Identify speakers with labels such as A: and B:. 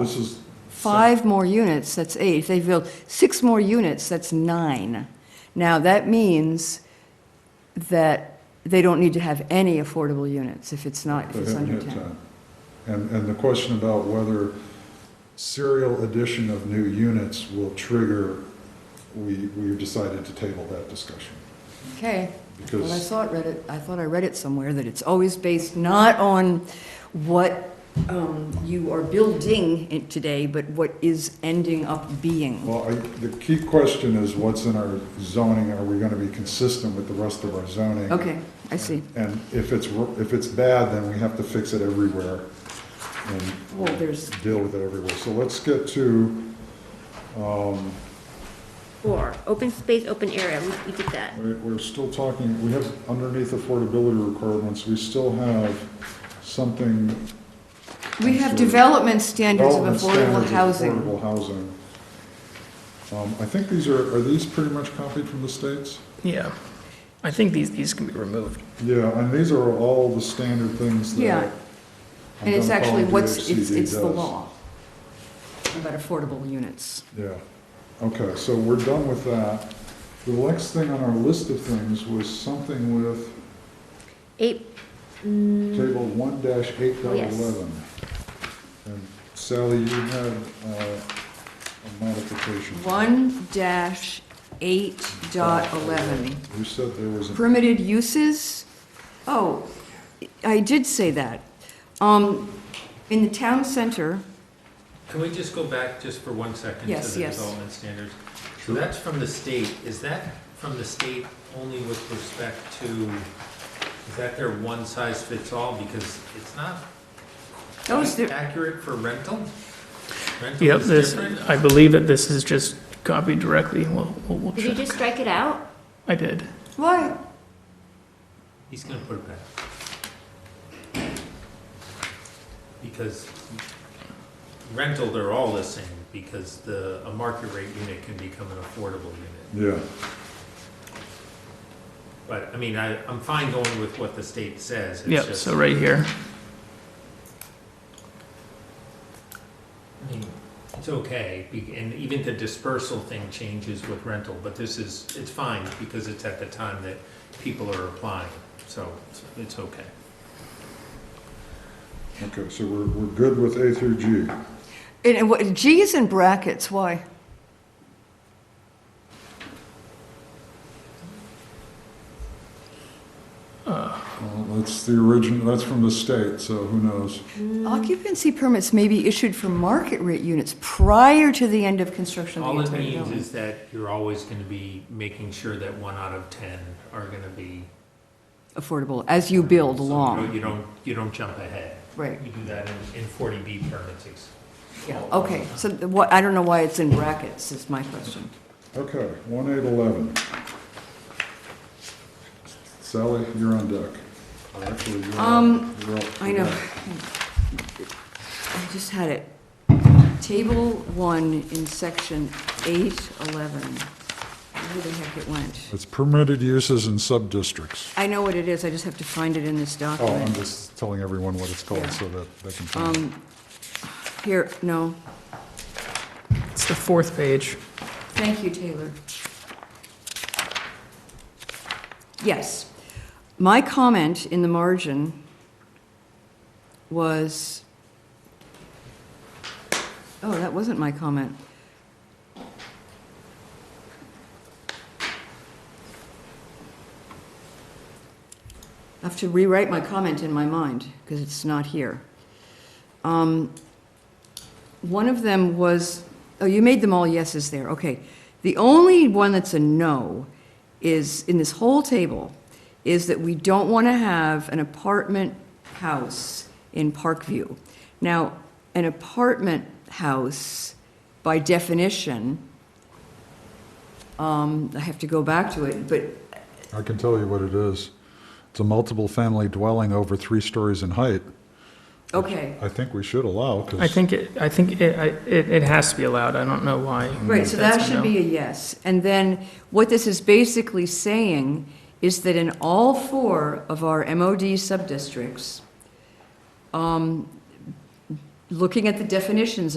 A: This is,
B: Uh, five more units, that's eight. If they build six more units, that's nine. Now, that means that they don't need to have any affordable units if it's not, if
A: they
B: it's
A: haven't
B: under
A: hit
B: 10.
A: 10. And, and the question about whether serial addition of new units will trigger, we, we've decided to table that discussion.
B: Okay. Well, I
A: Because,
B: thought read it, I thought I read it somewhere that it's always based not on what um, you are building in- today, but what is ending up being.
A: well, I, the key question is what's in our zoning? Are we going to be consistent with the rest of our zoning?
B: Okay, I see.
A: And if it's, r- if it's bad, then we have to fix it everywhere
B: Well,
A: and
B: there's
A: deal with it everywhere. So let's get to, um,
C: Four, open space, open area, we, we did that.
A: we- we're still talking, we have underneath affordability requirements, we still have something.
B: We have
A: Sure.
B: development standards of
A: development
B: affordable
A: standards of
B: housing.
A: Affordable housing. Um, I think these are, are these pretty much copied from the states?
D: Yeah, I think these, these can be removed.
A: Yeah, and these are all the standard things that.
B: Yeah. And it's actually
A: Montgomery
B: what's, it's,
A: DHCD
B: it's the
A: does.
B: law about affordable units.
A: Yeah, okay, so we're done with that. The next thing on our list of things was something with
C: Eight, mm,
A: table one dash eight dot
C: Yes.
A: eleven. And Sally, you had uh, a modification.
B: One dash eight dot eleven.
A: You said there was a,
B: Permitted uses? Oh, I did say that. Um, in the town center,
E: Can we just go back just for one second
B: Yes,
E: to the
B: yes.
E: development standards? So that's from the state, is that from the state only with respect to, is that their one size fits all? Because it's not
B: that was the,
E: accurate for rental? Rental
D: Yep,
E: is
D: this,
E: different?
D: I believe that this is just copied directly, we'll, we'll we'll
C: did you just
D: check.
C: strike it out?
D: I did.
B: why?
E: He's gonna put it back. Because rental, they're all the same, because the, a market rate unit can become an affordable unit.
A: yeah,
E: But, I mean, I, I'm fine going with what the state says. It's
D: Yep,
E: just-
D: so right here.
E: I mean, It's okay, be- and even the dispersal thing changes with rental, but this is, it's fine, because it's at the time that people are applying, so it's- it's okay.
A: okay, so we're, we're good with A through G.
B: And, and what, G is in brackets, why?
A: Well, That's the origin, that's from the state, so who knows?
B: Occupancy permits may be issued for market rate units prior to the end of construction of
E: All
B: the
E: it
B: entire
E: means
B: building.
E: is that you're always gonna be making sure that one out of ten are gonna be.
B: Affordable, as you build
E: so you don't-
B: along,
E: You don't, you don't jump ahead.
B: right,
E: You do that in, in forty B permits. it's-
B: yeah, okay. So the- what, I don't know why it's in brackets, is my question.
A: Okay, one eight eleven. Sally, you're on deck. Or Actually, you're
B: Um,
A: up- you're up.
B: I know. I just had it. Table one in section eight eleven. Where the heck it went?
A: It's permitted uses in sub-districts.
B: I know what it is, I just have to find it in this
A: Oh, I'm
B: document.
A: just telling everyone what it's called
B: Yeah.
A: so that they can. find it.
B: Um, here, no,
D: It's the fourth page.
B: Thank you, Taylor. Yes. My comment in the margin was, oh, that wasn't my comment. I have to rewrite my comment in my mind because it's not here. Um, One of them was, oh, you made them all yeses there, okay. The only one that's a no is, in this whole table, is that we don't want to have an apartment house in Parkview. Now, an apartment house, by definition, um, I have to go back to it, but
A: I can tell you what it is. It's a multiple-family dwelling over three stories in height.
B: Okay,
A: I think we should allow,
D: I
A: because
D: think it, I think it, I, it, it has to be allowed, I don't know why.
B: right, so that
D: Mm-hmm. that's a
B: should
D: no.
B: be a yes. And then what this is basically saying is that in all four of our MOD sub-districts, um, looking at the definitions of.